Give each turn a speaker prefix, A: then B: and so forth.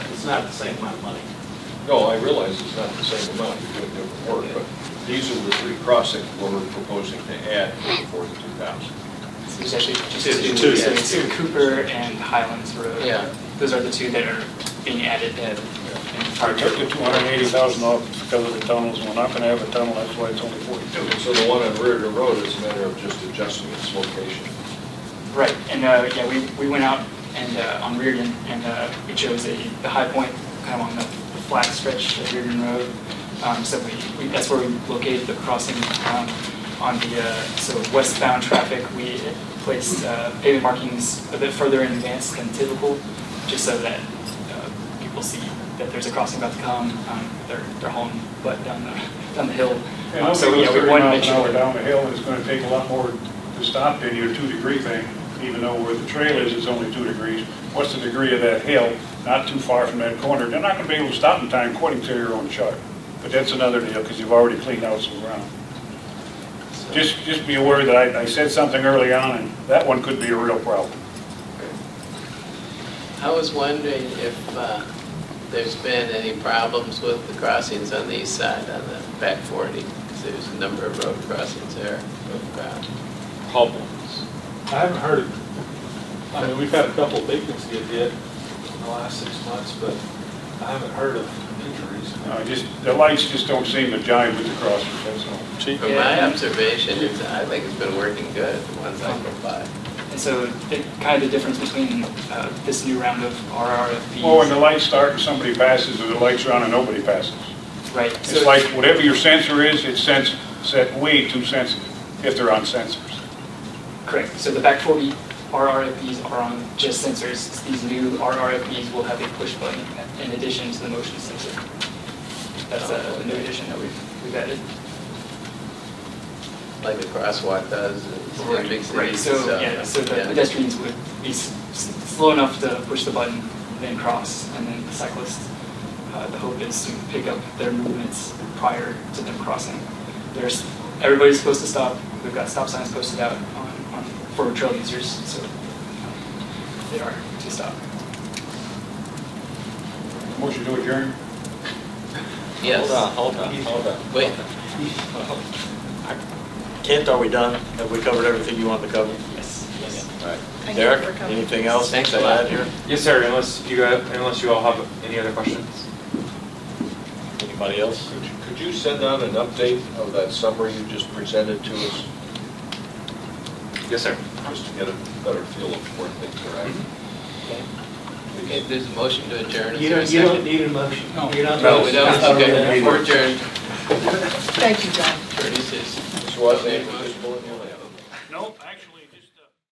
A: It's not the same amount of money.
B: No, I realize it's not the same amount, you're doing different work, but these are the three crossings where we're proposing to add for the 2,000.
C: There's actually just
D: Two.
C: two,
D: Two.
C: so it's Cooper and Highlands Road.
D: Yeah.
C: Those are the two that are being added in.
E: I took the two hundred and eighty thousand off because of the tunnels, we're not gonna have a tunnel, that's why it's only forty-two.
B: So the one on Riordan Road is a matter of just adjusting its location.
C: Right, and, uh, yeah, we, we went out and, uh, on Reardon, and, uh, we chose a, the high point, kind of on the the flat stretch of Reardon Road. Um, so we, we, that's where we located the crossing, um, on the, uh, so westbound traffic, we placed, uh, pavement markings a bit further in advance than typical, just so that, uh, people see that there's a crossing about to come, um, they're, they're hauling butt down the, down the hill.
E: And
C: Um,
E: also,
C: So, yeah,
E: thirty
C: we wanted to make
E: miles an
C: sure.
E: hour down the hill, it's gonna take a lot more to stop than your two-degree thing, even though where the trail is, it's only two degrees. What's the degree of that hill? Not too far from that corner, they're not gonna be able to stop in time according to your own chart. But that's another deal, because you've already cleaned out some ground.
A: So-
E: Just, just be aware that I, I said something early on, and that one could be a real problem.
D: I was wondering if uh, there's been any problems with the crossings on the east side on the back 40, because there's a number of road crossings there. Uh,
F: problems. I haven't heard of, I mean, we've had a couple of victims get hit in the last six months, but I haven't heard of injuries.
E: Uh, just, the lights just don't seem to jive with the crossers, that's all.
F: Chief?
D: From my observation, it's- I think it's been working good, the ones I go by.
C: And so the, kind of the difference between uh, this new round of RRFPs.
E: Well, when the lights start and somebody passes, or the lights are on and nobody passes.
C: Right.
E: It's like, whatever your sensor is, it's sens set way too sensitive, if they're on sensors.
C: Correct. So the back 40 RRFPs are on just sensors. These new RRFPs will have a push button in addition to the motion sensor. That's a new addition that we've, we've added.
D: Like the crosswalk does in big
C: Right,
D: cities.
C: so, yeah, so the
D: yeah.
C: pedestrians would be s- s- slow enough to push the button, then cross, and then the cyclists, uh, the hope is to pick up their movements prior to them crossing. There's, everybody's supposed to stop, we've got stop signs posted out on, on, for trail users, so um, they are to stop.
E: Motion to adjourn?
A: Hold on,
D: Yes.
A: hold on, hold on.
D: Wait,
G: Kent, are we done? Have we covered everything you wanted to cover?
C: Yes, yes.
H: I think
G: Derek,
H: we're covered.
G: anything else
D: Thanks
G: to
D: a lot.
G: add here?
I: Yes, sir, unless you guys, unless you all have any other questions.
G: Anybody else?
B: Could you- Could you send out an update of that summary you just presented to us,
I: Yes, sir.
B: just to get a better feel of where things are at?
D: okay, if there's a motion to adjourn, is
A: You
D: there a
A: don't, you don't
D: second?
A: need a motion.
C: No.
A: You don't.
D: No, we don't, okay, we're adjourned.
H: Thank you, John.
D: Produces.
B: So I think we just bullet in.
E: Nope, actually. uh,